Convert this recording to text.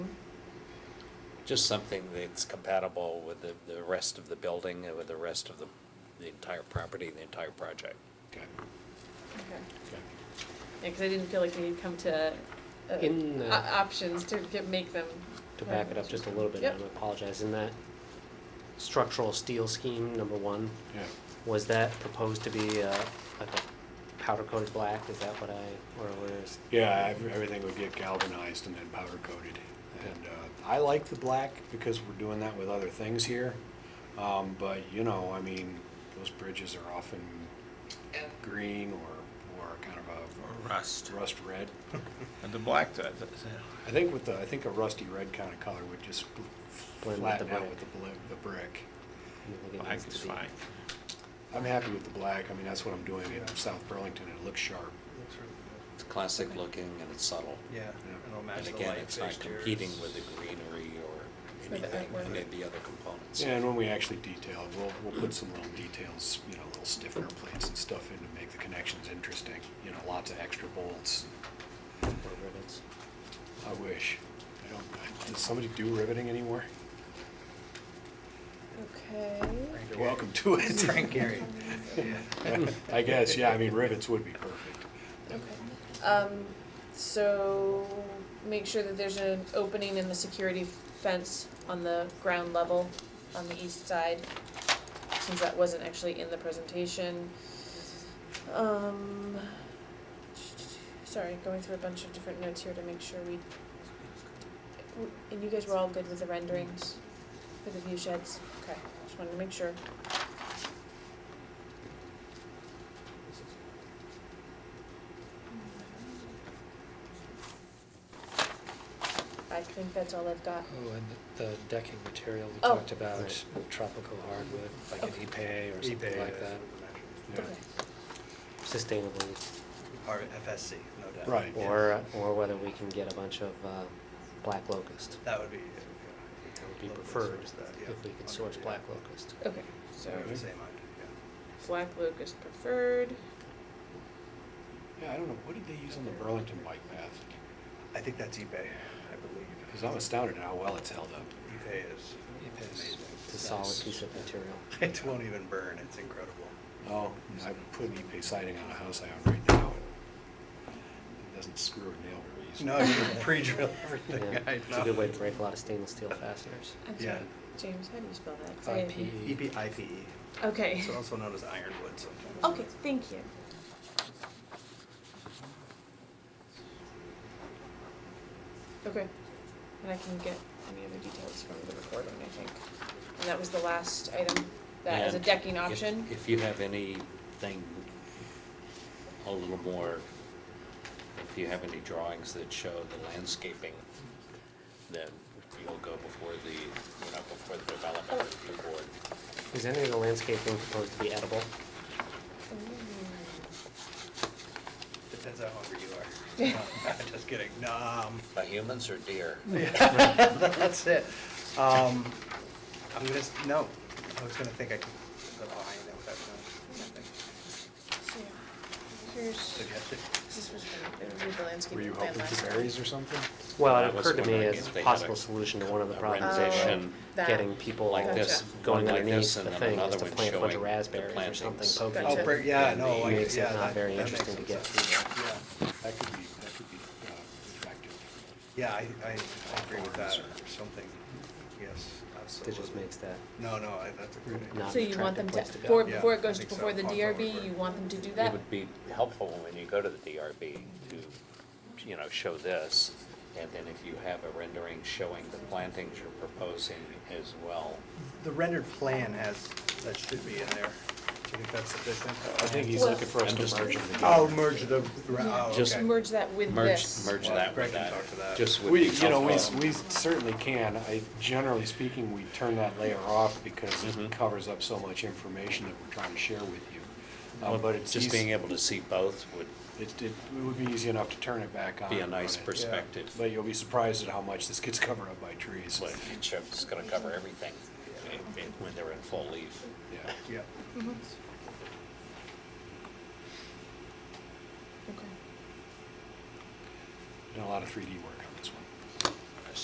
Just something that's compatible with the, the rest of the building and with the rest of the, the entire property, the entire project. Okay. Yeah, Okay. because I didn't feel like we had come to uh, In the- o- options to get, make them. To back it up just a little bit, Yep. I apologize, in that structural steel scheme, number one, Yeah. was that proposed to be uh, like a powder coated black, is that what I, or was? Yeah, ev- everything would get galvanized and then powder coated. And uh, I like the black because we're doing that with other things here. Um, But, you know, I mean, those bridges are often green or, or kind of a Rust. rust red. And the black, that, I think with the, I think a rusty red kind of color would just Blend with flatten the out brick. with the, bl- the brick. black is fine. I'm happy with the black. I mean, that's what I'm doing in South Burlington. It looks sharp. Looks really It's classic looking and it's subtle. good. Yeah, it'll match And the again, light it's not fixtures. competing with the greenery or the anything, artwork. any of the other components. Yeah, and when we actually detail, we'll, we'll put some little details, you know, little stiffener plates and stuff in to make the connections interesting. You know, lots of extra bolts. Or rivets. I wish. I don't, I- does somebody do riveting anymore? Okay. You're welcome to it. Frank Gehry. Yeah. I guess, yeah, I mean, rivets would be perfect. Okay. Um, so make sure that there's an opening in the security fence on the ground level on the east side, since that wasn't actually in the presentation. Um, sorry, going through a bunch of different notes here to make sure we, and you guys were all good with the renderings, with the view sheds? Okay, just wanted to make sure. I think that's all I've got. Oh, and the the decking material we Oh. talked about, Right. tropical hardwood, like an Okay. ipe or something like that. Yeah. Okay. Sustainably, Or FSC, no doubt. Right. Yeah. or, or whether we can get a bunch of uh, black locust, That would be. yeah, that would be look at preferred, source that, yeah. if we could Okay, source yeah. black locust. Okay, So, so same idea, black locust preferred. Yeah, I don't know, what did they use on the Burlington bike path? yeah. I think that's eBay, I believe. Because I'm astounded at how well it's held up. eBay is Ipe is- amazing. It's a solid piece of material. It won't even burn, it's incredible. Oh, I put an EP siding on a house I own right now. and It doesn't screw a nail very easily. No, you can pre-drill Yeah, everything, I know. It's a good way to break a lot of stainless steel fasteners. I'm Yeah. sorry, James, how do you spell that? 'Cause I- IP. E EPIPE, Okay. E. it's also known as ironwood sometimes. Okay, thank you. Okay, and I can get any other details from the recording, I think. And that was the last item, that is a And decking if- option. If you have anything a little more, if you have any drawings that show the landscaping, then you'll go before the, you know, before the development review board. Is any of the landscaping proposed to be edible? Depends how hungry you are. Just kidding, um, By humans or deer? that's it. Um, I'm gonna, s- no, I was gonna think I could, but I'll hang it without knowing. So, Here's, Suggested. this was, from- they reviewed the landscape Were you plan hoping last for time. berries or something? Well, I it was occurred to me wondering as if a they had a- possible solution to one of the a problems Oh, is rendition that. getting people Like this, Gotcha. going one like underneath this, the and then thing is another to one plant a bunch showing of the raspberries or something plantings. poking. Gotcha. Oh, it. br- yeah, And no, the- I, Makes it yeah, not that, that very makes some interesting sense. to get through. Yeah, That could be, that could be uh, effective. yeah, I, I I agree with that, or something, yes, It absolutely. just makes that No, no, I- that's a great idea. not So an you want attractive them to, place to before, go. Yeah, before it I goes, think before so. the I'll follow DRB, over. you want them to do It that? would be helpful when you go to the DRB to, you know, show this, and then if you have a rendering showing the plantings you're proposing as well. The rendered plan has, that should be in there. Do you think that's sufficient? I think he's Well- looking for us I'm just- to merge them together. Oh, merge the, oh, Just okay. Merge that with Merge, this. merge Well, that Greg with can that, talk to that. just would be We, you know, we, helpful. we certainly can. I, generally speaking, we turn that layer off because it covers up so much information that we're trying to share with you. Uh, But it's Just being easy, it, able to see both would it it would be easy enough to turn it back on. be a and nice run it. perspective. But you'll be surprised at how much this gets covered up by trees. But it shows it's gonna cover everything if- if- when they're in full leaf. Yeah. Yeah, Mm-hmm. Okay. Done a lot of 3D work